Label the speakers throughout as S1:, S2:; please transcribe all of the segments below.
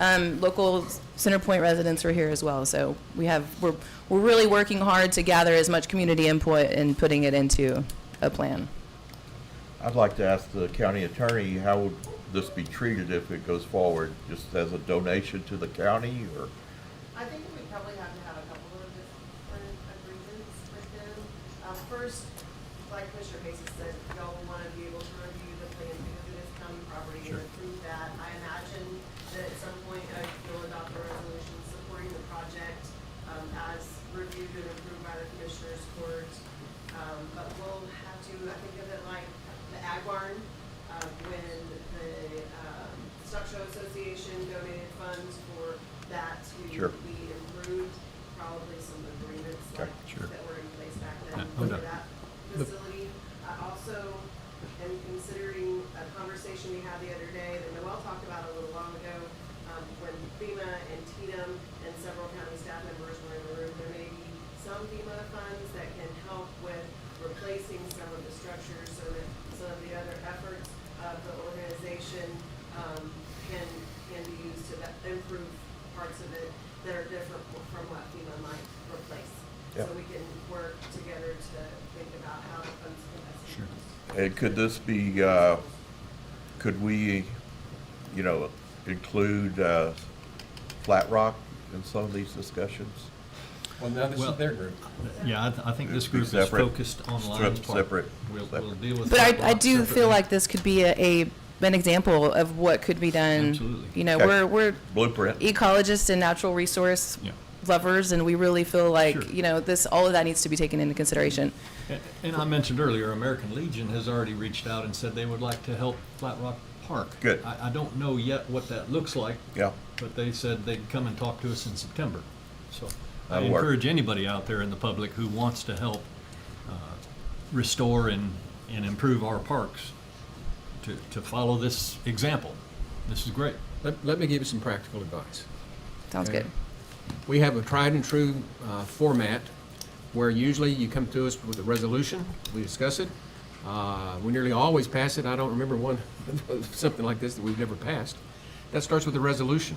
S1: Um, local Center Point residents are here as well, so we have, we're, we're really working hard to gather as much community input and putting it into a plan.
S2: I'd like to ask the county attorney, how would this be treated if it goes forward? Just as a donation to the county, or
S3: I think we probably have to have a couple of different agreements with them. Um, first, like Commissioner Basis said, y'all will wanna be able to review the plan because it is county property and approve that. I imagine that at some point, uh, you'll adopt a resolution supporting the project, um, as reviewed and approved by the Commissioners Court. Um, but we'll have to, I think of it like the ag barn, um, when the, um, Stock Show Association donated funds for that to
S2: Sure.
S3: we improved probably some agreements
S2: Okay,
S3: like
S4: sure.
S3: that were in place back then
S4: no
S3: for
S4: doubt.
S3: that
S4: The-
S3: facility. I also am considering a conversation we had the other day that Noel talked about a little while ago, um, when FEMA and TDM and several county staff members were in the room, there may be some FEMA funds that can help with replacing some of the structures so that some of the other efforts of the organization, um, can, can be used to that- improve parts of it that are different from what FEMA might replace. So
S2: Yeah.
S3: we can work together to think about how the funds can best be
S4: Sure.
S3: used.
S2: and could this be, uh, could we, you know, include uh, Flat Rock in some of these discussions?
S5: Well, now this
S4: Well-
S5: is their group.
S4: Yeah, I, th- I think this
S2: Be
S4: group is
S2: separate.
S4: focused on Lions Park.
S2: Separate,
S4: We'll, we'll
S2: separate.
S4: deal with.
S1: But
S4: that
S1: I, I
S4: rock
S1: do feel
S4: separately.
S1: like this could be a, a an example of what could be done.
S4: Absolutely.
S1: You know,
S2: Okay.
S1: we're we're
S2: Blueprint?
S1: E ecologists and natural resource
S4: Yeah.
S1: lovers, and we really feel like
S4: Sure.
S1: you know this all of that needs to be taken into consideration.
S4: A- And I mentioned earlier, American Legion has already reached out and said they would like to help Flat Rock Park.
S2: Good.
S4: I, I don't know yet what that looks like,
S2: Yeah,
S4: but they said they'd come and talk to us in September. So I
S2: That'll work.
S4: encourage anybody out there in the public who wants to help uh, restore and, and improve our parks to, to follow this example. This is great.
S5: Let, let me give you some practical advice.
S1: Sounds
S5: Okay.
S1: good.
S5: We have a tried and true uh, format where usually you come to us with a resolution, we discuss it. Uh, We nearly always pass it. I don't remember one, something like this that we've never passed. That starts with a resolution.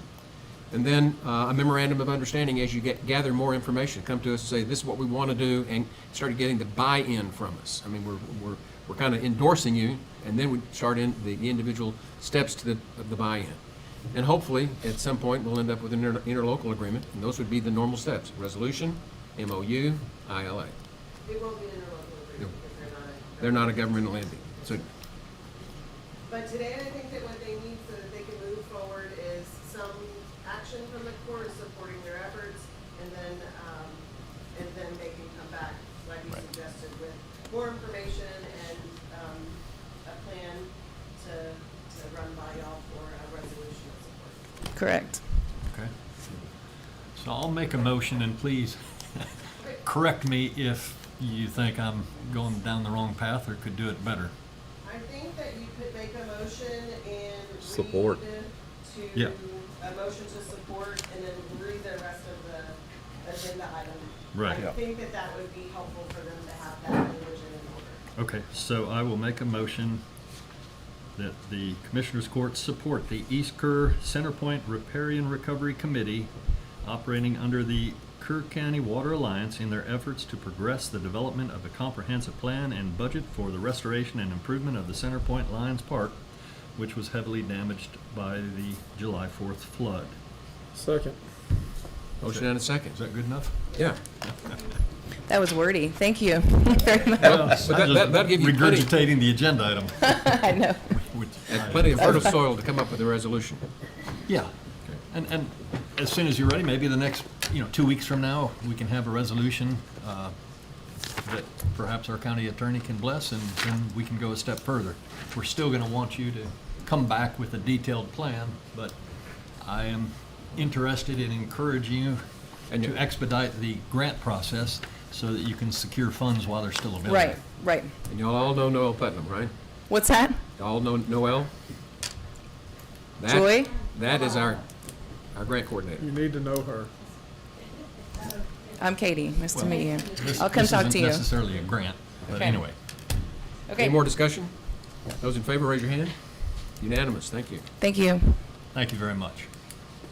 S5: And then uh, a memorandum of understanding as you get, gather more information, come to us and say, this is what we want to do, and start getting the buy-in from us. I mean, we're, we're, we're kind of endorsing you, and then we start in the the individual steps to the, of the buy-in. And hopefully, at some point, we'll end up with an inter- interlocal agreement, and those would be the normal steps, resolution, MOU, ILA.
S3: It won't be an interlocal agreement because they're not. a-
S5: They're not a governmental entity. So,
S3: But today, I think that what they need so that they can move forward is some action from the court supporting their efforts, and then, um, and then they can come back, like you suggested, with more information and, um, a plan to, to run by y'all for a resolution of support.
S1: Correct.
S4: Okay. So I'll make a motion and please correct me if you think I'm going down the wrong path or could do it better.
S3: I think that you could make a motion and
S6: Support.
S3: read to,
S4: Yeah.
S3: a motion to support and then read the rest of the agenda item.
S4: Right.
S3: I
S2: Yeah.
S3: think that that would be helpful for them to have that language in order.
S4: Okay, so I will make a motion that the Commissioners Court support the East Kerr Center Point Repair and Recovery Committee operating under the Kerr County Water Alliance in their efforts to progress the development of a comprehensive plan and budget for the restoration and improvement of the Center Point Lions Park, which was heavily damaged by the July fourth flood.
S6: Second.
S5: motion and a second.
S4: Is that good enough?
S5: Yeah.
S1: That was wordy. Thank you very much.
S4: Well,
S5: that- that- that'd give you plenty-
S4: Regurgitating the agenda item.
S1: I know.
S4: which I-
S5: And plenty of fertile soil to come up with a resolution.
S4: Yeah, and, and as soon as you're ready, maybe the next, you know, two weeks from now, we can have a resolution uh, that perhaps our county attorney can bless, and then we can go a step further. We're still gonna want you to come back with a detailed plan, but I am interested in encouraging you
S5: And
S4: to
S5: you-
S4: expedite the grant process so that you can secure funds while they're still available.
S1: Right. Right.
S5: And y'all all know Noel Putnam, right?
S1: What's that?
S5: Y'all know Noel? That-
S1: Joy?
S5: That is our, our grant coordinator.
S6: You need to know her.
S1: I'm Katie. Nice to
S4: Well,
S1: meet you.
S4: This-
S1: I'll come
S4: this
S1: talk
S4: isn't
S1: to you.
S4: necessarily a grant, but
S1: Okay.
S4: anyway.
S1: Okay.
S5: Any more discussion? Those in favor, raise your hand. Unanimous, thank you.
S1: Thank you.
S4: Thank you very much.